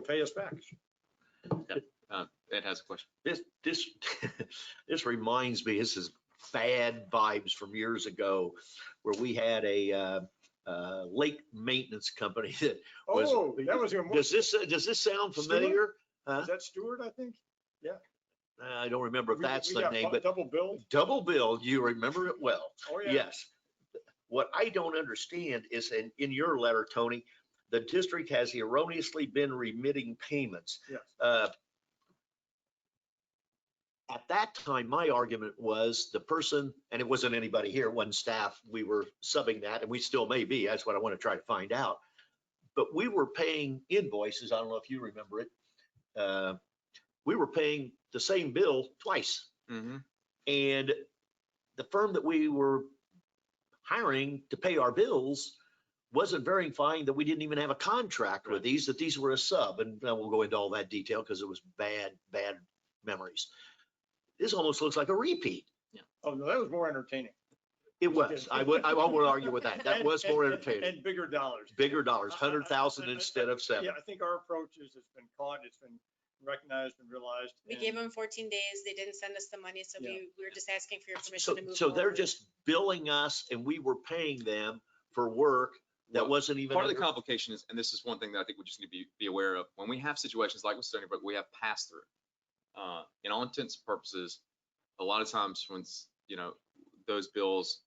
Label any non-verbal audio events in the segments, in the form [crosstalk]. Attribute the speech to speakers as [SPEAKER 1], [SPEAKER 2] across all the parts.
[SPEAKER 1] pay us back.
[SPEAKER 2] Ed has a question.
[SPEAKER 3] This, this, [laughs] this reminds me, this is bad vibes from years ago where we had a, uh, uh, lake maintenance company. [laughs] that- Was-
[SPEAKER 1] Oh, that was your, mo-
[SPEAKER 3] Does this, does this sound
[SPEAKER 1] Stewart?
[SPEAKER 3] familiar?
[SPEAKER 1] is that Stewart, I think?
[SPEAKER 3] Uh, I don't remember if
[SPEAKER 1] We-
[SPEAKER 3] that's
[SPEAKER 1] we
[SPEAKER 3] the
[SPEAKER 1] got
[SPEAKER 3] name,
[SPEAKER 1] bu-
[SPEAKER 3] but
[SPEAKER 1] Double billed.
[SPEAKER 3] double bill, you remember it well.
[SPEAKER 1] Oh, yeah.
[SPEAKER 3] Yes. What I don't understand is in, in your letter, Tony, the district has erroneously been remitting payments.
[SPEAKER 1] Yes.
[SPEAKER 3] Uh, At that time, my argument was the person, and it wasn't anybody here, one staff, we were subbing that, and we still may be, that's what I want to try to find out. But we were paying invoices, I don't know if you remember it. uh, We were paying the same bill twice. And the firm that we were hiring to pay our bills wasn't verifying that we didn't even have a contract with
[SPEAKER 2] Right.
[SPEAKER 3] these, that these were a sub. And uh, we'll go into all that detail because it was bad, bad memories. This almost looks like a repeat.
[SPEAKER 1] Oh, no, that was more entertaining.
[SPEAKER 3] It was. I would, I
[SPEAKER 2] [laughs]
[SPEAKER 3] won't argue with that. That
[SPEAKER 1] And-
[SPEAKER 3] was more
[SPEAKER 1] and-
[SPEAKER 3] entertaining.
[SPEAKER 1] And bigger dollars.
[SPEAKER 3] Bigger dollars,
[SPEAKER 1] I- I- I-
[SPEAKER 3] hundred thousand
[SPEAKER 1] I- I-
[SPEAKER 3] instead of seven.
[SPEAKER 1] Yeah, I think our approach is it's been caught, it's been recognized and realized.
[SPEAKER 4] We
[SPEAKER 1] and-
[SPEAKER 4] gave them fourteen days. They didn't send us the money, so
[SPEAKER 1] Yeah.
[SPEAKER 4] we, we were just asking for your permission
[SPEAKER 3] So,
[SPEAKER 4] to move
[SPEAKER 3] so they're
[SPEAKER 4] forward.
[SPEAKER 3] just billing us and we were paying them for work that
[SPEAKER 2] Well,
[SPEAKER 3] wasn't even.
[SPEAKER 2] Part of the
[SPEAKER 3] under-
[SPEAKER 2] complication is, and this is one thing that I think we just need to be, be aware of, when we have situations like with Stony Brook, we have pass-through. Uh, in all intents and purposes, a lot of times when, s- you know, those bills,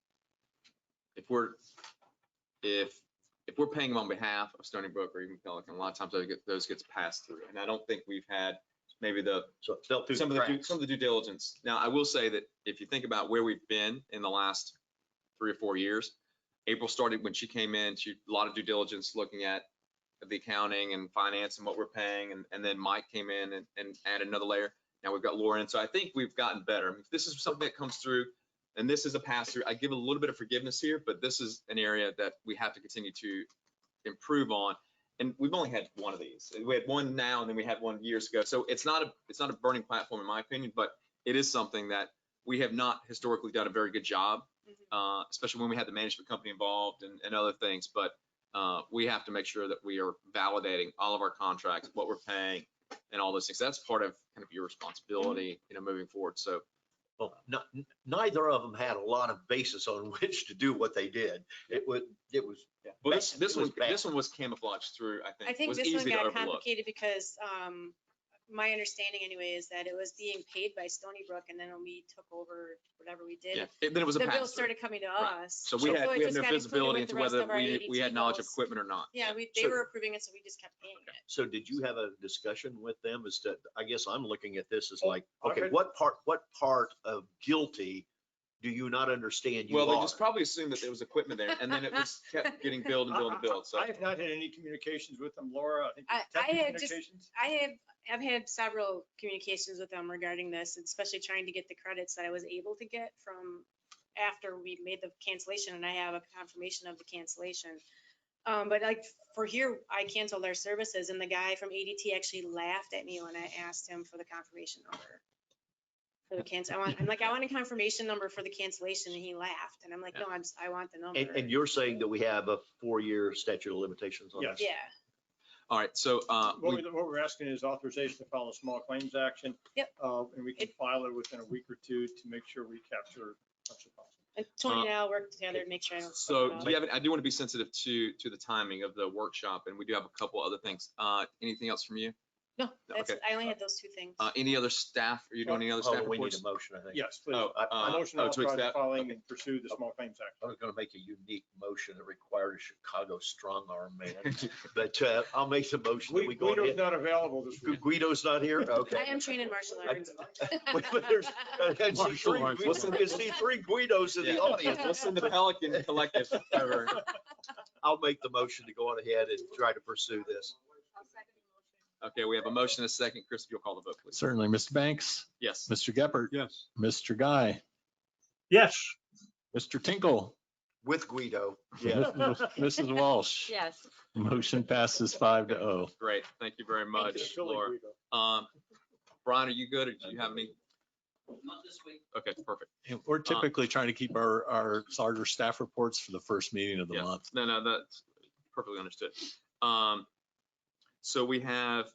[SPEAKER 2] if we're, if, if we're paying them on behalf of Stony Brook or even Pelican, a lot of times those get- those gets passed through. And I don't think we've had maybe the
[SPEAKER 3] So it fell through
[SPEAKER 2] some of
[SPEAKER 3] the
[SPEAKER 2] the, due-
[SPEAKER 3] cracks.
[SPEAKER 2] some of the due diligence. Now, I will say that if you think about where we've been in the last three or four years, April started when she came in, she, a lot of due diligence looking at the accounting and finance and what we're paying, and, and then Mike came in and, and added another layer. Now we've got Lauren, so I think we've gotten better. If This is something that comes through, and this is a pass through. I give a little bit of forgiveness here, but this is an area that we have to continue to improve on. And we've only had one of these. We had one now and then we had one years ago. So it's not a, it's not a burning platform in my opinion, but it is something that we have not historically done a very good job,
[SPEAKER 4] Mhm.
[SPEAKER 2] uh, especially when we had the management company involved and, and other things. But uh, we have to make sure that we are validating all of our contracts, what we're paying and all those things. That's part of kind of your responsibility,
[SPEAKER 4] Mm-hmm.
[SPEAKER 2] you know, moving forward. So
[SPEAKER 3] Well, no- n- neither of them had a lot of basis on [laughs] which to do what they did. It was, it was,
[SPEAKER 2] Well, this,
[SPEAKER 3] Bad.
[SPEAKER 2] this
[SPEAKER 3] It was
[SPEAKER 2] one, this one was camouflaged through, I think.
[SPEAKER 4] I think
[SPEAKER 2] was
[SPEAKER 4] this one
[SPEAKER 2] easy to
[SPEAKER 4] got
[SPEAKER 2] overlook.
[SPEAKER 4] complicated because, um, my understanding anyway is that it was being paid by Stony Brook and then when we took over whatever we
[SPEAKER 2] Yeah,
[SPEAKER 4] did,
[SPEAKER 2] it- then it was a
[SPEAKER 4] the bill
[SPEAKER 2] pass through.
[SPEAKER 4] started coming to
[SPEAKER 2] Right.
[SPEAKER 4] us.
[SPEAKER 2] So we had,
[SPEAKER 4] so it
[SPEAKER 2] we had
[SPEAKER 4] just
[SPEAKER 2] no
[SPEAKER 4] got included with
[SPEAKER 2] visibility into
[SPEAKER 4] the rest
[SPEAKER 2] whether
[SPEAKER 4] of our
[SPEAKER 2] we, we had
[SPEAKER 4] ADT
[SPEAKER 2] knowledge of
[SPEAKER 4] goals.
[SPEAKER 2] equipment or not.
[SPEAKER 4] Yeah, we,
[SPEAKER 3] So-
[SPEAKER 4] they were approving it, so we just kept paying it.
[SPEAKER 3] so did you have a discussion with them as to, I guess I'm looking at this as like,
[SPEAKER 1] Oh,
[SPEAKER 3] okay,
[SPEAKER 1] okay.
[SPEAKER 3] what part, what part of guilty do you not understand you
[SPEAKER 2] Well, they
[SPEAKER 3] are?
[SPEAKER 2] just probably assumed that there was equipment there and then it
[SPEAKER 4] [laughs]
[SPEAKER 2] was kept getting billed and billed and billed. So
[SPEAKER 1] I have not had any communications with them, Laura. I think
[SPEAKER 4] I-
[SPEAKER 1] you've
[SPEAKER 4] I
[SPEAKER 1] had
[SPEAKER 4] had just-
[SPEAKER 1] communications.
[SPEAKER 4] I have, I've had several communications with them regarding this, especially trying to get the credits that I was able to get from after we made the cancellation and I have a confirmation of the cancellation. Um, but like for here, I canceled their services and the guy from ADT actually laughed at me when I asked him for the confirmation number. For the cancel, I want, I'm like, I want a confirmation number for the cancellation and he laughed and I'm like, no, I'm, s- I want the
[SPEAKER 3] And,
[SPEAKER 4] number.
[SPEAKER 3] and you're saying that we have a four-year statute of limitations on
[SPEAKER 1] Yes.
[SPEAKER 3] this?
[SPEAKER 4] Yeah,
[SPEAKER 2] All right, so, uh,
[SPEAKER 1] What
[SPEAKER 2] we-
[SPEAKER 1] we're, what we're asking is authorization to file a small claims action.
[SPEAKER 4] Yep.
[SPEAKER 1] Uh, and we can
[SPEAKER 4] It-
[SPEAKER 1] file it within a week or two to make sure we capture. as much as possible.
[SPEAKER 4] and Tony and I will work together to make sure I don't. fuck
[SPEAKER 2] so
[SPEAKER 4] it up.
[SPEAKER 2] do you have, I do want to be sensitive to, to the timing of the workshop and we do have a couple other things. Uh, anything else from you?
[SPEAKER 4] No, that's,
[SPEAKER 2] okay.
[SPEAKER 4] I only had those two things.
[SPEAKER 2] Uh, any other staff? Are you doing any other staff
[SPEAKER 3] Oh, we need
[SPEAKER 2] reports?
[SPEAKER 3] a motion, I think.
[SPEAKER 1] Yes, please.
[SPEAKER 2] Oh,
[SPEAKER 3] I-
[SPEAKER 1] A
[SPEAKER 2] uh,
[SPEAKER 1] motion
[SPEAKER 2] oh, to
[SPEAKER 1] authorizing
[SPEAKER 2] accept-
[SPEAKER 1] filing and pursue the small claims act.
[SPEAKER 3] I was gonna make a unique motion that required a Chicago strong arm man, but, uh, I'll make the motion that
[SPEAKER 1] Gui-
[SPEAKER 3] we go
[SPEAKER 1] Guido's
[SPEAKER 3] ahead.
[SPEAKER 1] not available this week.
[SPEAKER 3] Guido's not
[SPEAKER 4] [laughs]
[SPEAKER 3] here? Okay.
[SPEAKER 4] I am trained in martial
[SPEAKER 3] I- [laughs]
[SPEAKER 4] arts.
[SPEAKER 3] But- but
[SPEAKER 4] [laughs]
[SPEAKER 3] there's- And see
[SPEAKER 2] Martial
[SPEAKER 3] three,
[SPEAKER 2] arts.
[SPEAKER 3] Guido- you see three Guidos in
[SPEAKER 2] Yeah.
[SPEAKER 3] the audience.
[SPEAKER 2] [laughs] We'll send the Pelican Collective over.
[SPEAKER 3] I'll make the motion to go on ahead and try to pursue this.
[SPEAKER 2] Okay, we have a motion and a second. Chris, if you'll call the vote, please.
[SPEAKER 5] Certainly, Mr. Banks,
[SPEAKER 2] Yes.
[SPEAKER 5] Mr. Geppert,
[SPEAKER 1] Yes.
[SPEAKER 5] Mr. Guy,
[SPEAKER 1] Yes.
[SPEAKER 5] Mr. Tinkle,
[SPEAKER 3] With Guido, yeah.
[SPEAKER 5] Mrs. Walsh.
[SPEAKER 6] Yes.
[SPEAKER 5] Motion passes five to oh.
[SPEAKER 2] Great, thank you very much, Laura. Um, Brian, are you good, or do you have any? Not this week. Okay, perfect.
[SPEAKER 5] And We're typically trying to keep our, our larger staff reports for the first meeting of the
[SPEAKER 2] Yeah.
[SPEAKER 5] month.
[SPEAKER 2] No, no, that's perfectly understood. Um, so we have